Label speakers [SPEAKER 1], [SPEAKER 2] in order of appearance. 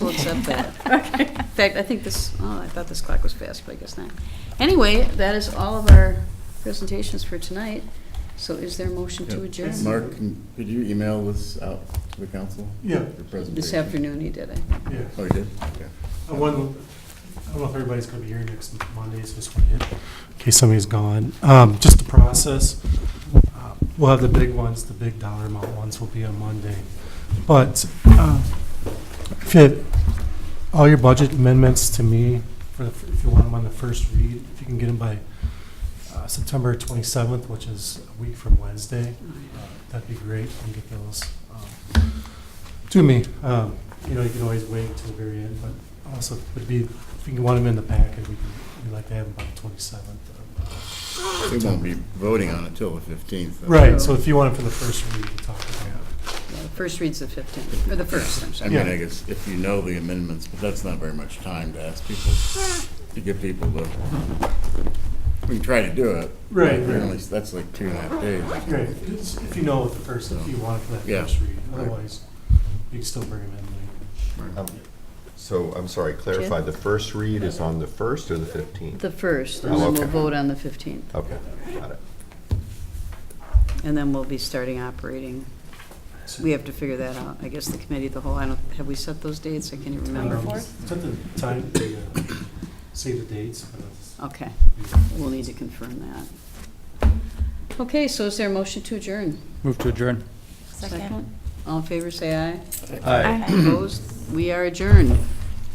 [SPEAKER 1] accept that. In fact, I think this, oh, I thought this clock was fast, but I guess not. Anyway, that is all of our presentations for tonight. So is there a motion to
[SPEAKER 2] Yeah.
[SPEAKER 1] adjourn?
[SPEAKER 3] Mark, can- could you email this out to the council?
[SPEAKER 2] Yeah,
[SPEAKER 3] Your presentation?
[SPEAKER 1] This afternoon he did it.
[SPEAKER 2] yeah.
[SPEAKER 3] Oh, you did? Okay.
[SPEAKER 2] I wonder- I don't know if everybody's gonna be here next Monday, so just wait in case somebody's gone. Um, just the process. uh, We'll have the big ones, the big dollar amount ones will be on Monday. But, uh, if you, had all your budget amendments to me, for, the- if you want them on the first read, if you can get them by, uh, September twenty-seventh, which is a week from Wednesday, uh, that'd be great, and get those, um, to me. Um, you know, you can always wait until the very end, but also would be, if you want them in the packet, we can, we'd like to have them by the twenty-seventh. uh,
[SPEAKER 3] We won't be voting on it till the fifteenth.
[SPEAKER 1] Sure.
[SPEAKER 2] Right, so if you want it for the first read, we can talk about
[SPEAKER 1] Yeah, the First reads the 15th, or the first, I'm
[SPEAKER 3] I
[SPEAKER 1] sorry.
[SPEAKER 3] mean,
[SPEAKER 2] Yeah.
[SPEAKER 3] I guess if you know the amendments, but that's not very much time to ask people, to get people to, we can try to do it.
[SPEAKER 2] Right,
[SPEAKER 3] but
[SPEAKER 2] right.
[SPEAKER 3] at least That's like two and a half days.
[SPEAKER 2] it. Great, it's- if you know what the first, if you want it for that
[SPEAKER 3] Yeah.
[SPEAKER 2] first read,
[SPEAKER 3] Right.
[SPEAKER 2] otherwise, you can still bring them in later.
[SPEAKER 4] Um, So, I'm sorry, clarify, the first read is on the 1st or the 15th?
[SPEAKER 1] The first, and
[SPEAKER 4] Oh,
[SPEAKER 1] then
[SPEAKER 4] okay.
[SPEAKER 1] we'll vote on the 15th.
[SPEAKER 4] Okay, got it.
[SPEAKER 1] And then we'll be starting operating. We have to figure that out. I guess the committee, of the whole, I don't, have we set those dates? I can't even remember.
[SPEAKER 2] Um, Set the time, the, uh, save the dates. but it's-
[SPEAKER 1] Okay, we'll need to confirm that. Okay, so is there a motion to adjourn?
[SPEAKER 5] Move to adjourn.
[SPEAKER 1] Second. All in favor, say aye.
[SPEAKER 5] Aye.
[SPEAKER 1] Opposed? We are adjourned.